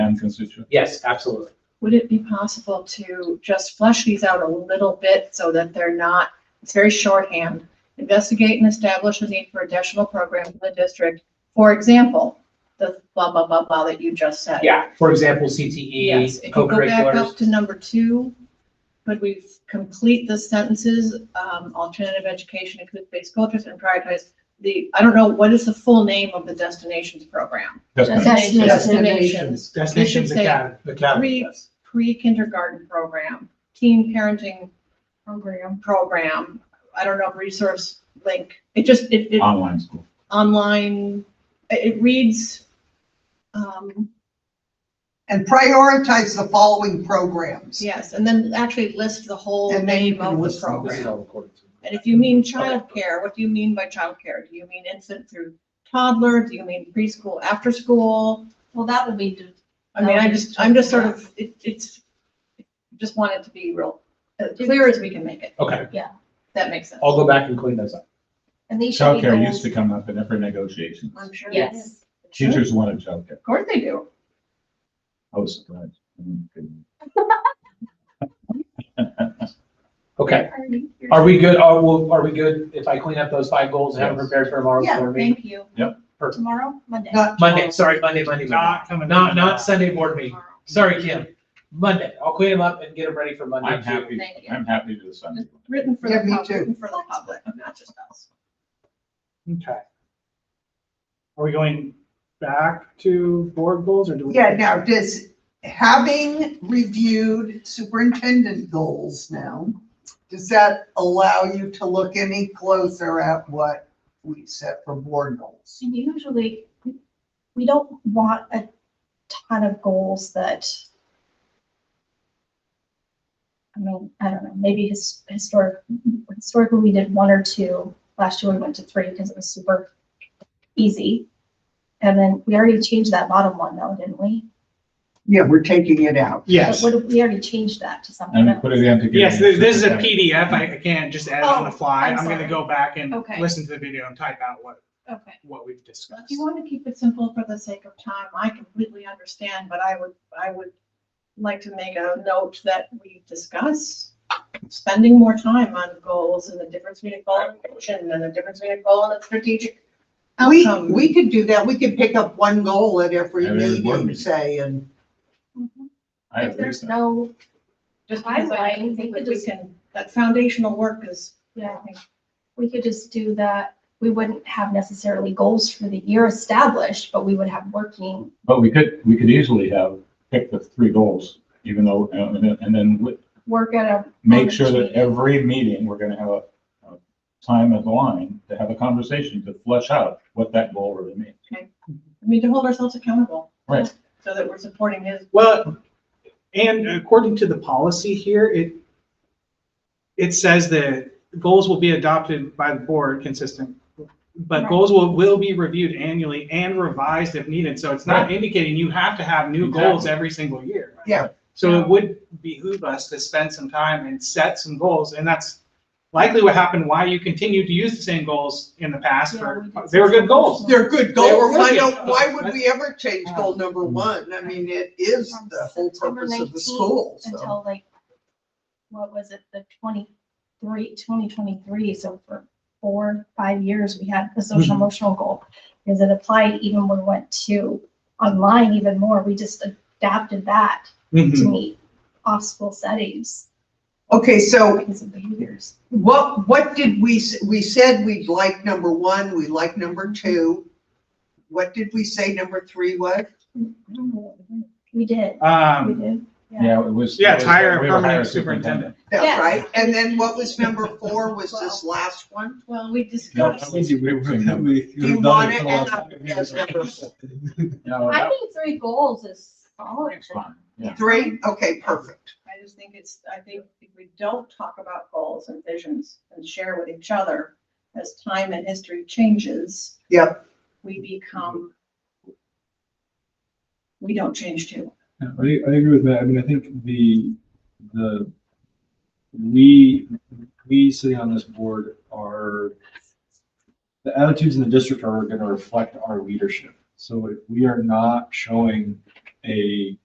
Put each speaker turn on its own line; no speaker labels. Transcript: non constituent
Yes, absolutely.
Would it be possible to just flesh these out a little bit so that they're not, it's very shorthand. Investigate and establish the need for additional programs in the district. For example, the blah, blah, blah, blah that you just said.
Yeah, for example, E, CTE,
Yes, if you go back up
co-curriculars.
to number two, could we complete the sentences, um, alternative education, include-based cultures and prioritize the, I don't know, what is the full name of the destinations program?
destination.
Destinations
Destinations. They should say
Acad- Academy,
three-
yes.
Pre-kindergarten program, teen parenting
program.
program, I don't know, resource link, it just, it, it,
online school.
online, it it reads, um,
And prioritize the following programs.
yes, and then actually list the whole
And then you
name
can
of the
list them.
This is
program.
all recorded.
And if you mean childcare, what do you mean by childcare? Do you mean infant through toddler? Do you mean preschool, after school?
Well, that would be, do-
I mean, I just, I'm just sort of, it, it's, just want it to be real, as clear as we can make it.
Okay,
That makes sense.
I'll go back and clean those up.
and these should be
Childcare used
goals.
to come up in every negotiation.
I'm sure. it is.
Yes.
Teachers wanted childcare.
Of course they do.
I was surprised. I mean, good.
Okay, are we good? Are, well, are we good if I clean up those five goals and have them
Yes.
prepared for tomorrow's
Yeah,
board meeting?
Thank you.
Tomorrow, Monday.
Not-
Monday, sorry, Monday, Monday, Monday.
coming.
Not, not Sunday board meeting.
Tomorrow.
Sorry, Kim. Monday. I'll clean them up and get them ready for Monday.
I'm
too.
happy,
Thank you.
I'm happy to do Sunday.
Written for
Yeah,
the
me
public,
too.
written for the public, not just us.
Okay. Are we going back to board goals or do we?
Yeah, now, does, having reviewed superintendent goals now, does that allow you to look any closer at what we set for board goals?
And usually, we- we don't want a ton of goals that, I mean, I don't know, maybe his, historic, historically, we did one or two. Last year, we went to three because it was super easy. And then we already changed that bottom one though, didn't we?
Yeah, we're taking it out.
Yes,
But what if We already changed that to something
And
else.
put it in together.
yes, this this is a PDF. I I can't just add it on the
Oh,
fly.
I'm
I'm gonna
sorry.
go back and
Okay.
listen to the video and type out what,
Okay.
what we've
Well,
discussed.
If you want to keep it simple for the sake of time, I completely understand, but I would, I would like to make a note that we discuss spending more time on goals and the difference between a goal and a vision and the difference between a goal and a strategic
We,
outcome.
we could do that. We could pick up one goal at every
At every board
meeting,
meeting.
say, and
I agree
If
with
there's
that.
no,
Just because I
Timeline,
think
we
that
could
we
just-
can, that foundational work is, I
yeah,
think,
we could just do that. We wouldn't have necessarily goals for the year established, but we would have working.
But we could, we could easily have picked the three goals, even though, uh, and then- and then we-
Work at a.
make sure that
meeting.
every meeting, we're gonna have a, a time at the line to have a conversation to flesh out what that goal really means.
I mean, to hold ourselves accountable.
Right.
So that we're supporting his,
Well, and according to the policy here, it, it says that goals will be adopted by the board consistent. But
Right.
goals will, will be reviewed annually and revised if needed. So it's not
Right.
indicating you have to have new goals
Exactly.
every single year.
Yeah.
So it would behoove us to spend some time and set some goals. And that's likely what happened, why you continued to use the same goals in the past for,
Yeah, we did.
they were good goals.
they're good
They were
goals. I
working.
don't, why would we ever change goal number one? I mean, it is the whole purpose of the school, so.
Until like, what was it, the 23, 2023, so for four, five years, we had the social
Hmm.
emotional goal. Because it applied even when we went to online even more, we just adapted that to
Hmm.
meet off-school settings
Okay, so
because of behaviors.
What, what did we, s- we said we'd like number one, we like number two. What did we say number three was?
I don't know what we did. We did, we
Um,
did. Yeah.
Yeah, it was.
Yeah,
it was-
hire a
we were hiring
permanent superintendent.
That's
Yes.
right. And then what was number four was this last one?
well, we
No, that
discussed.
was- we were doing that.
Do you want it as a- as number
uh, No,
I
that
think three goals is solid.
was fine, yeah.
three? Okay, perfect.
I just think it's, I think if we don't talk about goals and visions and share with each other as time and history changes.
Yep.
We become. We don't change too.
Yeah, I, I agree with that. I mean, I think the, the, we, we sitting on this board are, the attitudes in the district are gonna reflect our leadership. So if we are not showing a